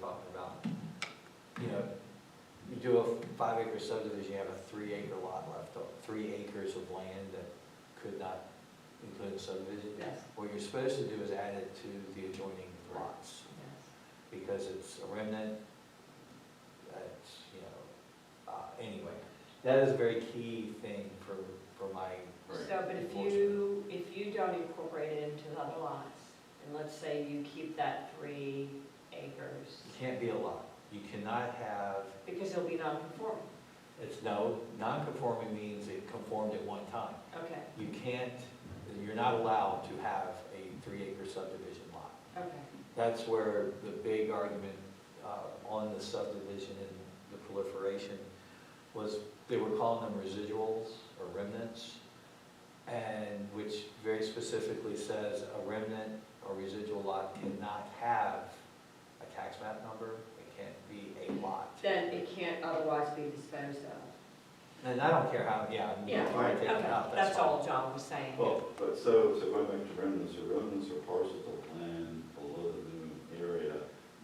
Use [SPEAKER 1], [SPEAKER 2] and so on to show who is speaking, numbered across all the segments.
[SPEAKER 1] talking about. You know, you do a five acre subdivision, you have a three acre lot left, o- three acres of land that could not include a subdivision.
[SPEAKER 2] Yes,
[SPEAKER 1] What you're supposed to do is add it to the adjoining lots,
[SPEAKER 2] yes.
[SPEAKER 1] because it's a remnant, that's, you know, uh, anyway. That is a very key thing for, for my,
[SPEAKER 2] So, but if you, if you don't incorporate it into the other lots, and let's say you keep that three acres,
[SPEAKER 1] it can't be a lot. You cannot have
[SPEAKER 2] because it'll be non-conforming,
[SPEAKER 1] It's no, non-conforming means it conformed at one time.
[SPEAKER 2] okay,
[SPEAKER 1] You can't, you're not allowed to have a three-acre subdivision lot.
[SPEAKER 2] okay.
[SPEAKER 1] That's where the big argument uh, on the subdivision and the proliferation was, they were calling them residuals or remnants, and which very specifically says a remnant or residual lot cannot have a tax map number, it can't be a lot.
[SPEAKER 2] Then it can't otherwise be disposed of.
[SPEAKER 1] And I don't care how, yeah, I'm
[SPEAKER 2] Yeah,
[SPEAKER 1] trying to take it
[SPEAKER 2] okay,
[SPEAKER 1] out, that's
[SPEAKER 2] that's
[SPEAKER 1] fine.
[SPEAKER 2] all John was saying.
[SPEAKER 1] Well,
[SPEAKER 3] But so, so going back to remnants, or remnants or parcels of land below the new area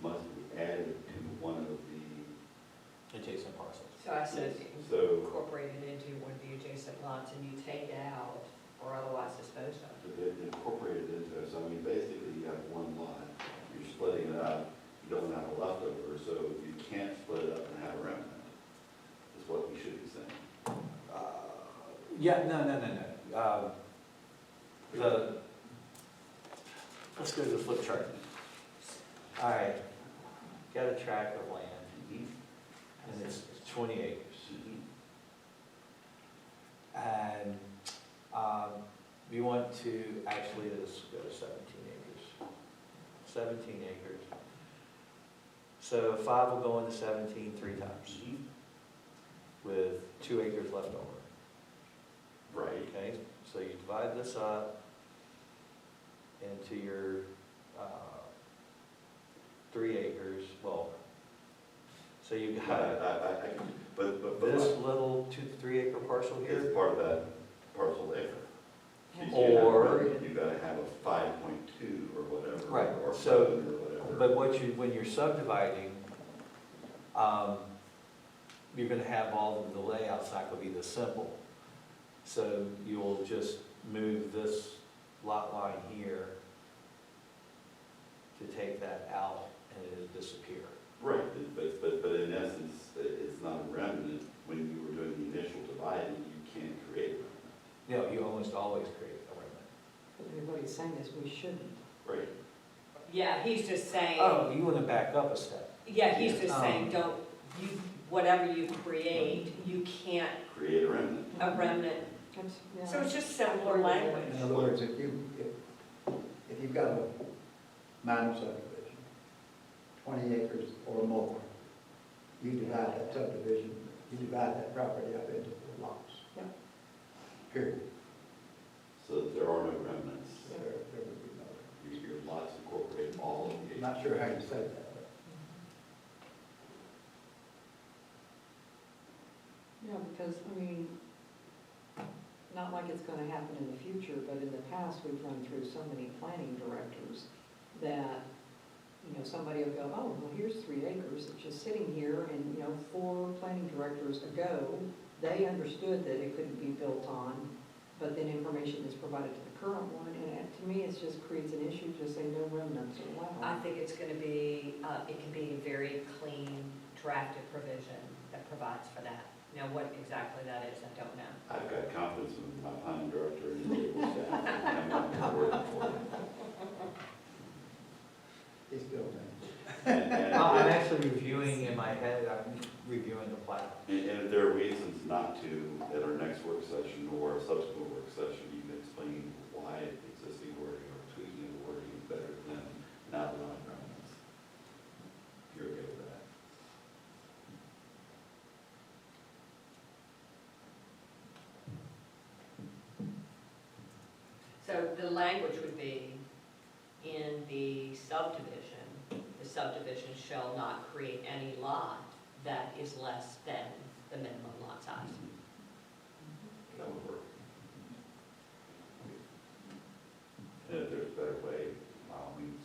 [SPEAKER 3] must be added to one of the,
[SPEAKER 1] adjacent parcels.
[SPEAKER 2] So I said
[SPEAKER 3] so
[SPEAKER 2] incorporate it into one of the adjacent lots, and you take it out, or otherwise dispose of.
[SPEAKER 3] they incorporated into it, so I mean, basically you have one lot, you're splitting it up, you don't have a leftover, so you can't split it up and have a remnant, is what we should be saying.
[SPEAKER 1] Uh, Yeah, no, no, no, no. Um, The, let's go to the flip chart. All right, got a tract of land, and it's twenty acres. And um, we want to, actually, let's go to seventeen acres. Seventeen acres. So five will go into seventeen three times, with two acres left over.
[SPEAKER 3] Right,
[SPEAKER 1] Okay, so you divide this up into your, uh, three acres, well, so you
[SPEAKER 3] I, I,
[SPEAKER 1] got
[SPEAKER 3] I, I- but, but,
[SPEAKER 1] this
[SPEAKER 3] but
[SPEAKER 1] little two, three acre parcel here,
[SPEAKER 3] it's part of that parcel acre. You
[SPEAKER 2] Yeah.
[SPEAKER 3] see it,
[SPEAKER 1] Or-
[SPEAKER 3] You gotta have a five point two or whatever.
[SPEAKER 1] Right,
[SPEAKER 3] Or
[SPEAKER 1] so-
[SPEAKER 3] seven or whatever.
[SPEAKER 1] but what you, when you're subdividing, um, you're gonna have all of the layouts not gonna be this simple. So you'll just move this lot line here to take that out and it'll disappear.
[SPEAKER 3] Right, but, but, but in essence, i- it's not a remnant, when you were doing the initial dividing, you can't create a
[SPEAKER 1] No, you almost always create a remnant.
[SPEAKER 4] What he's saying is we shouldn't.
[SPEAKER 3] remnant, right?
[SPEAKER 2] Yeah, he's just saying.
[SPEAKER 1] Oh, you wanna back up a step.
[SPEAKER 2] Yeah, he's just saying,
[SPEAKER 1] Um,
[SPEAKER 2] don't, you, whatever you create, you can't,
[SPEAKER 3] Create a remnant.
[SPEAKER 2] a remnant,
[SPEAKER 4] That's- yeah.
[SPEAKER 2] so it's just simpler language.
[SPEAKER 5] In other words, if you, if, if you've got a minor subdivision, twenty acres or more, you divide that subdivision, you divide that property up into four lots.
[SPEAKER 4] Yeah.
[SPEAKER 5] Period.
[SPEAKER 3] So that there are no remnants.
[SPEAKER 5] There, there would be no,
[SPEAKER 3] Your, your lots incorporate all of
[SPEAKER 5] I'm
[SPEAKER 3] the.
[SPEAKER 5] not sure how you say that, but.
[SPEAKER 4] Yeah, because, I mean, not like it's gonna happen in the future, but in the past, we've run through so many planning directors that, you know, somebody will go, oh, well, here's three acres, it's just sitting here, and, you know, four planning directors ago, they understood that it couldn't be built on, but then information is provided to the current one, and it- to me, it just creates an issue to say no remnants
[SPEAKER 2] I
[SPEAKER 4] allowed.
[SPEAKER 2] think it's gonna be, uh, it can be a very clean drafted provision that provides for that. Now, what exactly that is, I don't know.
[SPEAKER 3] I've got confidence in my planning director and legal staff. I'm not working for them.
[SPEAKER 5] It's built
[SPEAKER 3] And- and-
[SPEAKER 1] Well, Oh, I'm actually reviewing in my head, I'm reviewing the plat.
[SPEAKER 3] And, and if there are reasons not to, at our next work session or a subsequent work session, you can explain why existing wording or tweaking the wording is better than not allowing remnants. If You're okay with that?
[SPEAKER 2] So the language would be, in the subdivision, the subdivision shall not create any lot that is less than the minimum lot size.
[SPEAKER 3] That would work. And if there's a better way,